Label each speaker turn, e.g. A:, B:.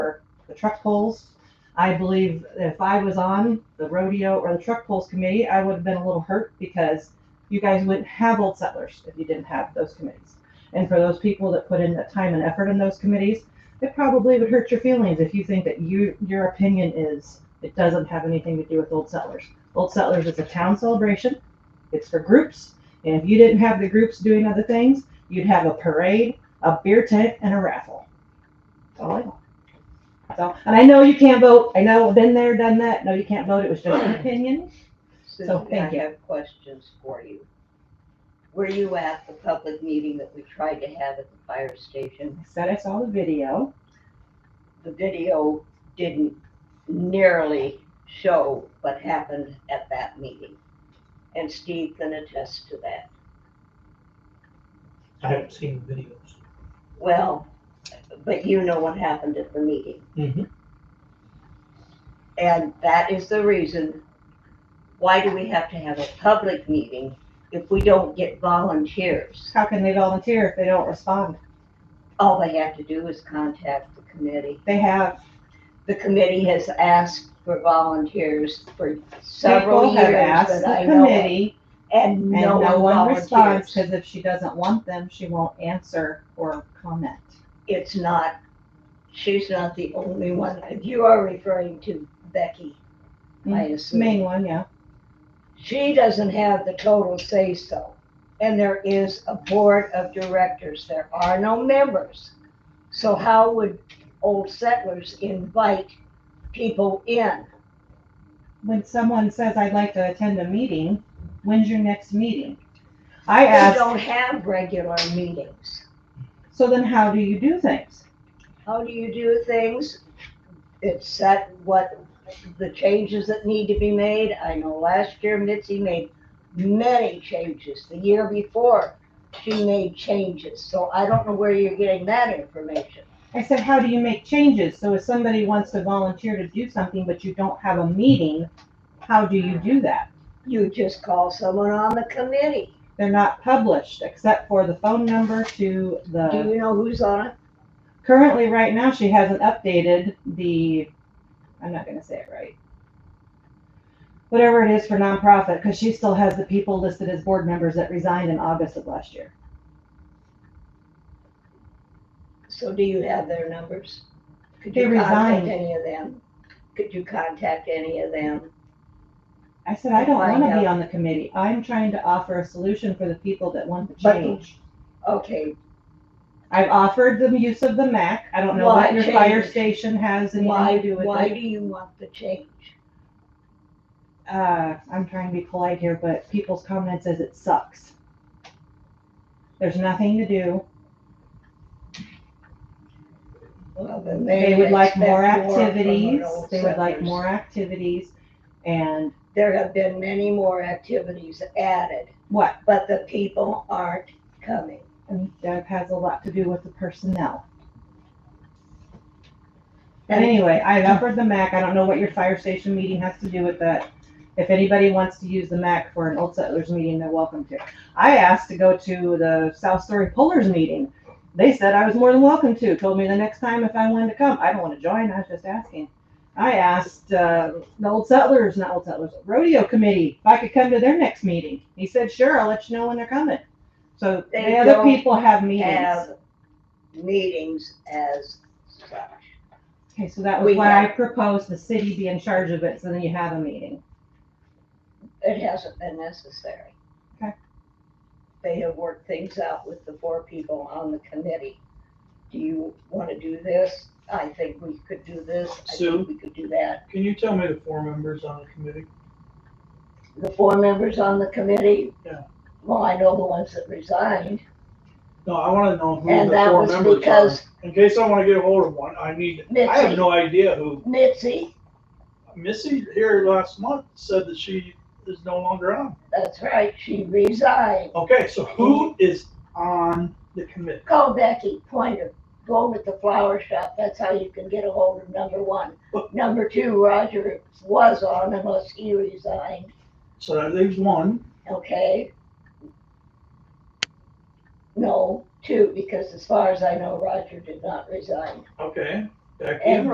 A: the truck pulls. I believe that if I was on the rodeo or the truck pulls committee, I would have been a little hurt because you guys wouldn't have old settlers if you didn't have those committees. And for those people that put in that time and effort in those committees, it probably would hurt your feelings if you think that you your opinion is it doesn't have anything to do with old settlers. Old settlers is a town celebration. It's for groups, and if you didn't have the groups doing other things, you'd have a parade, a beer tent, and a raffle. That's all I know. So, and I know you can't vote. I know, I've been there, done that. No, you can't vote. It was just an opinion.
B: Susan, I
A: thank you.
B: have questions for you. Were you at the public meeting that we tried to have at the fire station?
A: I said I saw the video.
B: The video didn't nearly show what happened at that meeting. And Steve can attest to that.
C: I haven't seen the videos.
B: Well, but you know what happened at the meeting.
C: Mhm.
B: And that is the reason, why do we have to have a public meeting if we don't get volunteers?
A: How can they volunteer if they don't respond?
B: All they have to do is contact the committee.
A: They have,
B: The committee has asked for volunteers for several
A: people have
B: years
A: asked
B: that
A: the
B: I know of.
A: committee
B: And
A: and no one responds
B: volunteers.
A: because if she doesn't want them, she won't answer or comment.
B: It's not, she's not the only one. You are referring to Becky,
A: Mm-hmm.
B: I assume.
A: Main one, yeah.
B: She doesn't have the total say-so. And there is a board of directors. There are no members. So how would old settlers invite people in?
A: When someone says, I'd like to attend a meeting, when's your next meeting? I
B: They
A: asked,
B: don't have regular meetings.
A: so then how do you do things?
B: How do you do things? It's set what, the changes that need to be made. I know last year Mitzi made many changes. The year before, she made changes. So I don't know where you're getting that information.
A: I said, how do you make changes? So if somebody wants to volunteer to do something, but you don't have a meeting, how do you do that?
B: You just call someone on the committee.
A: They're not published except for the phone number to the.
B: Do you know who's on it?
A: currently right now she hasn't updated the i'm not going to say it right whatever it is for nonprofit because she still has the people listed as board members that resigned in august of last year
B: So do you have their numbers? Could
A: They
B: you contact
A: resigned.
B: any of them? Could you contact any of them?
A: i said i don't want
B: Find
A: to
B: out.
A: be on the committee i'm trying to offer a solution for the people that want the
B: But-
A: change
B: Okay,
A: i've offered the use of the mac i don't know
B: Why
A: what your fire
B: change?
A: station has
B: why,
A: anything to do with
B: why
A: it
B: do you want the change?
A: uh, I'm trying to be polite here, but people's comments is it sucks. There's nothing to do.
B: Well, then
A: They would like
B: expect
A: more
B: from an
A: activities,
B: old
A: they would like
B: settlers.
A: more activities, and
B: There have been many more activities added,
A: what,
B: but the people aren't coming.
A: and that has a lot to do with the personnel. But
B: And
A: anyway, I offered the MAC, I don't know what your fire station meeting has to do with that. If anybody wants to use the MAC for an Old Settlers meeting, they're welcome to. I asked to go to the South Story Pullers meeting, they said I was more than welcome to, told me the next time if I wanted to come, I don't wanna join, I was just asking. I asked, uh, the Old Settlers, not Old Settlers, Rodeo Committee, if I could come to their next meeting, he said, sure, I'll let you know when they're coming. So
B: They
A: the other
B: don't
A: people have meetings.
B: Have meetings as such.
A: Okay, so that
B: We
A: was why I
B: have-
A: proposed the city be in charge of it, so then you have a meeting.
B: It hasn't been necessary.
A: Okay.
B: They have worked things out with the four people on the committee. Do you want to do this? I think we could do this. I
C: Sue?
B: think we could do that.
C: Can you tell me the four members on the committee?
B: The four members on the committee?
C: Yeah.
B: Well, I know the ones that resigned,
C: No, I wanna know who
B: and
C: the
B: that
C: four
B: was
C: members are.
B: because
C: In case I wanna get a hold of one, I need, I have
B: Mitzi.
C: no idea who.
B: Mitzi,
C: Missy here last month said that she is no longer on.
B: that's right, she resigned.
C: Okay, so who is on the committee?
B: Call Becky Pointer, go over at the flower shop, that's how you can get a hold of number one.
C: But-
B: Number two, Roger was on unless he resigned.
C: So that leaves one.
B: Okay. No, two, because as far as I know, Roger did not resign.
C: Okay. Becky
B: And
C: and